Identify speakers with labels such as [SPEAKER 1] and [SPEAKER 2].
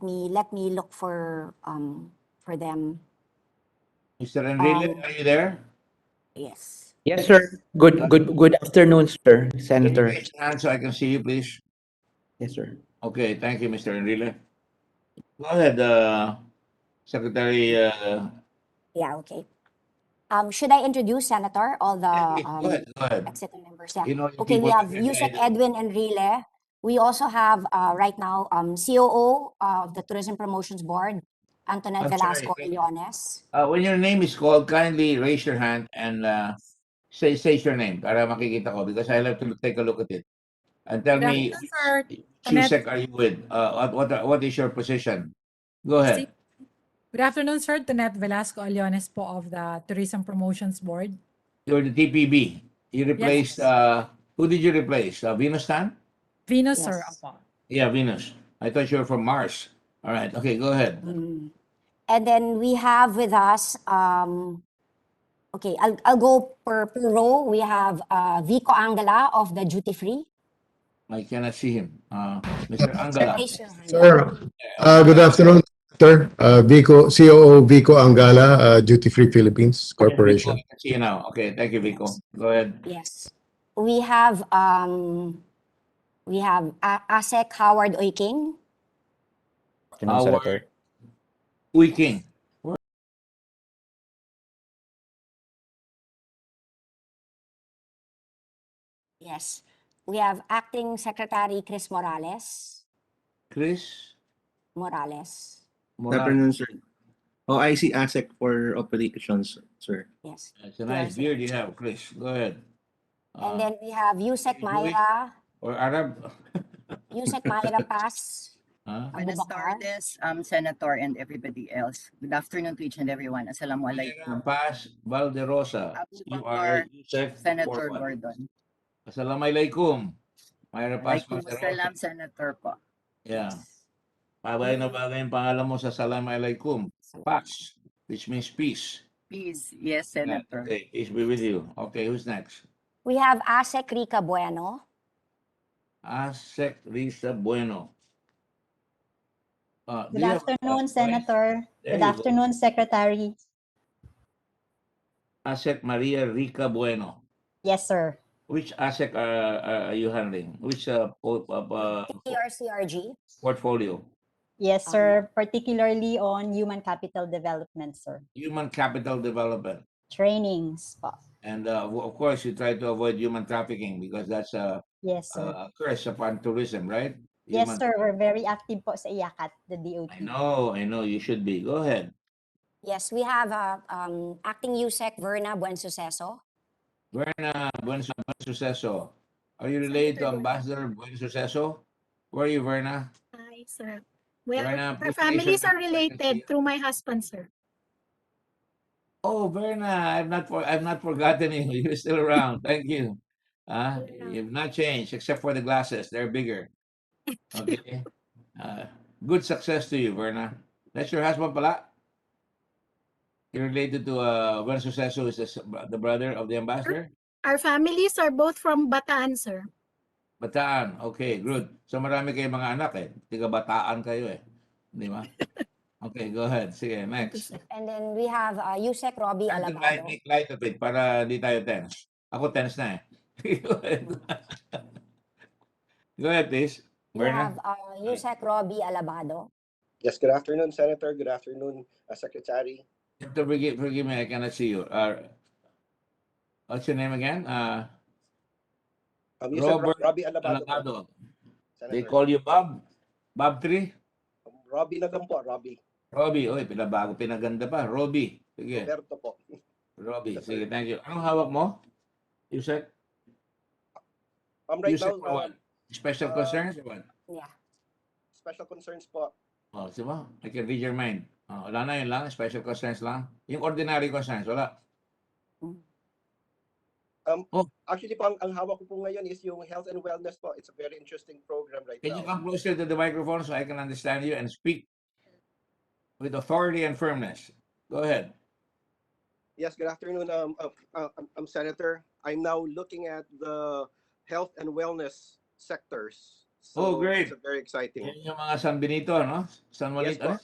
[SPEAKER 1] me let me look for um for them.
[SPEAKER 2] Mr. Enrile,
[SPEAKER 1] Um,
[SPEAKER 2] are you there?
[SPEAKER 1] Yes.
[SPEAKER 3] Yes, sir. Good, good, good afternoon, sir,
[SPEAKER 2] Can you
[SPEAKER 3] Senator.
[SPEAKER 2] raise your hand so I can see you, please?
[SPEAKER 3] Yes, sir.
[SPEAKER 2] Okay, thank you, Mr. Enrile. Go ahead, uh, Secretary, uh,
[SPEAKER 1] Yeah. Okay. Um, should I introduce Senator all the
[SPEAKER 2] yeah, go
[SPEAKER 1] um,
[SPEAKER 2] ahead, go ahead.
[SPEAKER 1] exit members? Yeah.
[SPEAKER 2] You know your
[SPEAKER 1] Okay, we
[SPEAKER 2] people
[SPEAKER 1] have
[SPEAKER 2] there,
[SPEAKER 1] Yusek
[SPEAKER 2] right?
[SPEAKER 1] Edwin Enrile. We also have uh, right now um, COO uh, of the Tourism Promotions Board, Antoinette
[SPEAKER 2] I'm sorry,
[SPEAKER 1] Velasco
[SPEAKER 2] thank you.
[SPEAKER 1] Leones.
[SPEAKER 2] Uh, when your name is called, kindly raise your hand and, uh, say, say your name para makikita ko because I'll have to take a look at it. And tell
[SPEAKER 4] Good
[SPEAKER 2] me,
[SPEAKER 4] afternoon, sir.
[SPEAKER 2] Chusek, are you with? Uh, what, what, what is your position? Go ahead.
[SPEAKER 4] Good afternoon, sir. Tanet Velasco Aliones po of the Tourism Promotions Board.
[SPEAKER 2] You're the TPB. You replaced, uh, who did you replace? Uh, Venus Tan?
[SPEAKER 4] Venus, sir.
[SPEAKER 1] Yes.
[SPEAKER 4] Opo.
[SPEAKER 2] Yeah, Venus. I thought you were from Mars. All right. Okay, go ahead.
[SPEAKER 1] Mm. And then we have with us, um, okay, I'll, I'll go per, per row. We have uh, Vico Angela of the Duty Free.
[SPEAKER 2] I cannot see him. Uh, Mr. Angala.
[SPEAKER 1] Raise your hand.
[SPEAKER 5] Sir, uh, good afternoon, sir. Uh, Vico, COO Vico Angala, uh, Duty Free Philippines Corporation.
[SPEAKER 2] I can See you now. Okay, thank you, Vico. Go ahead.
[SPEAKER 1] Yes. We have, um, we have A- ASEC Howard Oiking.
[SPEAKER 2] Our- Uy King.
[SPEAKER 1] Yes. We have Acting Secretary Chris Morales.
[SPEAKER 2] Chris
[SPEAKER 1] Morales.
[SPEAKER 6] Good
[SPEAKER 2] Morales.
[SPEAKER 6] afternoon, sir. Oh, I see ASEC for operations, sir.
[SPEAKER 1] Yes.
[SPEAKER 2] It's a nice beard you have, Chris. Go ahead.
[SPEAKER 1] And
[SPEAKER 2] Uh,
[SPEAKER 1] then we have Yusek
[SPEAKER 2] you do it.
[SPEAKER 1] Mayra,
[SPEAKER 2] or Arab.
[SPEAKER 1] Yusek Mayra Paz.
[SPEAKER 2] Huh?
[SPEAKER 7] Buenas
[SPEAKER 1] Abubakar.
[SPEAKER 7] tardes, um, Senator and everybody else. Good afternoon to each and everyone. Assalamualaikum.
[SPEAKER 2] Paz Valderosa. You are
[SPEAKER 7] Abubakar,
[SPEAKER 2] Yusef
[SPEAKER 7] Senator
[SPEAKER 2] Orban.
[SPEAKER 7] Gordon.
[SPEAKER 2] Assalamualaikum. Mayra Paz
[SPEAKER 7] Waalaikumsalam, Senator po.
[SPEAKER 2] Yeah. Bagay na bagay yung pangalan mo sa Salam Alaikum. Pax, which means peace.
[SPEAKER 7] Please, yes,
[SPEAKER 2] Yeah,
[SPEAKER 7] Senator.
[SPEAKER 2] Okay, peace be with you. Okay, who's next?
[SPEAKER 1] We have ASEC Rica Bueno.
[SPEAKER 2] Asek Risa Ah, Bueno. Uh, do
[SPEAKER 8] Good
[SPEAKER 2] you have a
[SPEAKER 8] afternoon,
[SPEAKER 2] voice?
[SPEAKER 8] Senator.
[SPEAKER 2] There
[SPEAKER 8] Good
[SPEAKER 2] you go.
[SPEAKER 8] afternoon, Secretary.
[SPEAKER 2] Asek Maria Rica Bueno.
[SPEAKER 8] Yes, sir.
[SPEAKER 2] Which Asek are, are- are you handling? Which uh, po- uh, uh,
[SPEAKER 1] TRCRG.
[SPEAKER 2] portfolio?
[SPEAKER 8] Yes,
[SPEAKER 1] Um,
[SPEAKER 8] sir. Particularly on human capital development, sir.
[SPEAKER 2] Human capital development.
[SPEAKER 8] Trainings po.
[SPEAKER 2] And uh, w- of course, you try to avoid human trafficking because that's a, a
[SPEAKER 8] Yes, sir.
[SPEAKER 2] a curse upon tourism, right? Uh,
[SPEAKER 8] Yes,
[SPEAKER 2] Human-
[SPEAKER 8] sir. We're very active po sa IACAT, the DOT.
[SPEAKER 2] I know, I know, you should be. Go ahead.
[SPEAKER 1] Yes, we have uh, um, Acting USEC Verna Buensuceso.
[SPEAKER 2] Verna Buen, Su- Buen Suceso. Are you related to Ambassador Buen Suceso? Where are you, Verna?
[SPEAKER 9] Hi, sir. Well, our
[SPEAKER 2] Verna, please raise your
[SPEAKER 9] families are
[SPEAKER 2] hand so I can see you.
[SPEAKER 9] related through my husband, sir.
[SPEAKER 2] Oh, Verna, I've not for, I've not forgotten you. You're still around. Thank you. Uh,
[SPEAKER 9] Yeah.
[SPEAKER 2] you've not changed except for the glasses. They're bigger. Okay. Uh, good success to you, Verna. That's your husband pala? You're related to uh, Buen Suceso, is the, s- the brother of the ambassador?
[SPEAKER 9] Our families are both from Bataan, sir.
[SPEAKER 2] Bataan. Okay, good. So marami kayong mga anak eh. Tiga Bataan kayo eh. Di ba? Okay, go ahead. Sige, next.
[SPEAKER 1] And then we have uh, Yusek Robbie
[SPEAKER 2] Try to light,
[SPEAKER 1] Alabado.
[SPEAKER 2] make light of it para hindi tayo tense. Ako tense na eh. go ahead. go ahead, please.
[SPEAKER 1] We have
[SPEAKER 2] Verna.
[SPEAKER 1] uh, Yusek Robbie Alabado.
[SPEAKER 10] Yes, good afternoon, Senator. Good afternoon, uh, Secretary.
[SPEAKER 2] You have to forgive, forgive me, I cannot see you. Uh, what's your name again? Uh,
[SPEAKER 10] Um, you said Ro-
[SPEAKER 2] Robert
[SPEAKER 10] Robbie Alabado. po,
[SPEAKER 2] Alagado. They
[SPEAKER 10] Senator.
[SPEAKER 2] call you Bob? Bob 3?
[SPEAKER 10] Um, Robbie na lang po, Robbie.
[SPEAKER 2] Robbie. Oy, pinabago, pinaganda pa. Robbie. Sige.
[SPEAKER 10] Roberto po.
[SPEAKER 2] Robbie,
[SPEAKER 10] Yes,
[SPEAKER 2] sige, thank you. Anong hawak mo? Yusek?
[SPEAKER 10] Um, right
[SPEAKER 2] Yusek
[SPEAKER 10] now, uh,
[SPEAKER 2] Rowan? Special
[SPEAKER 10] uh,
[SPEAKER 2] concerns or what?
[SPEAKER 10] special concerns po.
[SPEAKER 2] Oh, di ba? I can read your mind. Oh, wala na yun lang, special concerns lang. Yung ordinary concerns, wala.
[SPEAKER 10] Actually po, ang, ang hawak ko po ngayon is yung health and wellness po. It's a very interesting program right
[SPEAKER 2] Can you
[SPEAKER 10] now.
[SPEAKER 2] come closer to the microphone so I can understand you and speak with authority and firmness? Go ahead.
[SPEAKER 10] Yes, good afternoon, um, uh, uh, um, um, Senator. I'm now looking at the health and wellness sectors
[SPEAKER 2] Oh,
[SPEAKER 10] So
[SPEAKER 2] great.
[SPEAKER 10] It's a very exciting.
[SPEAKER 2] Yan yung mga San Benito, no? San Juanito.
[SPEAKER 10] po.